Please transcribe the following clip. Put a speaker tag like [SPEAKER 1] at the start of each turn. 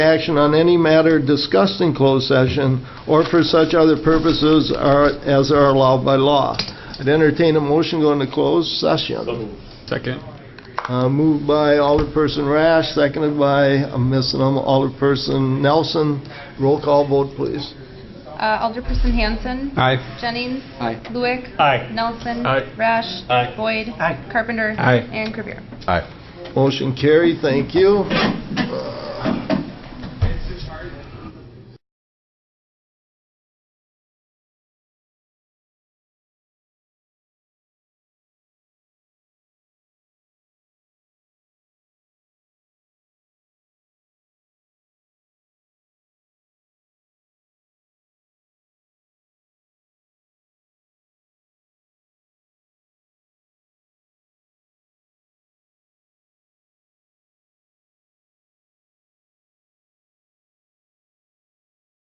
[SPEAKER 1] action on any matter discussed in closed session or for such other purposes are- as are allowed by law. I'd entertain a motion going to closed session.
[SPEAKER 2] Second.
[SPEAKER 1] Uh, Moved by Alderperson Rash, seconded by, uh, I'm missing them, Alderperson Nelson. Roll call vote, please.
[SPEAKER 3] Uh, Alderperson Hanson.
[SPEAKER 2] Aye.
[SPEAKER 3] Jennings.
[SPEAKER 2] Aye.
[SPEAKER 3] Lewick.
[SPEAKER 4] Aye.
[SPEAKER 3] Nelson.
[SPEAKER 2] Aye.
[SPEAKER 3] Rash.
[SPEAKER 4] Aye.
[SPEAKER 3] Boyd. Carpenter.
[SPEAKER 2] Aye.
[SPEAKER 3] And Revere.
[SPEAKER 2] Aye.
[SPEAKER 1] Motion carried, thank you. Uh,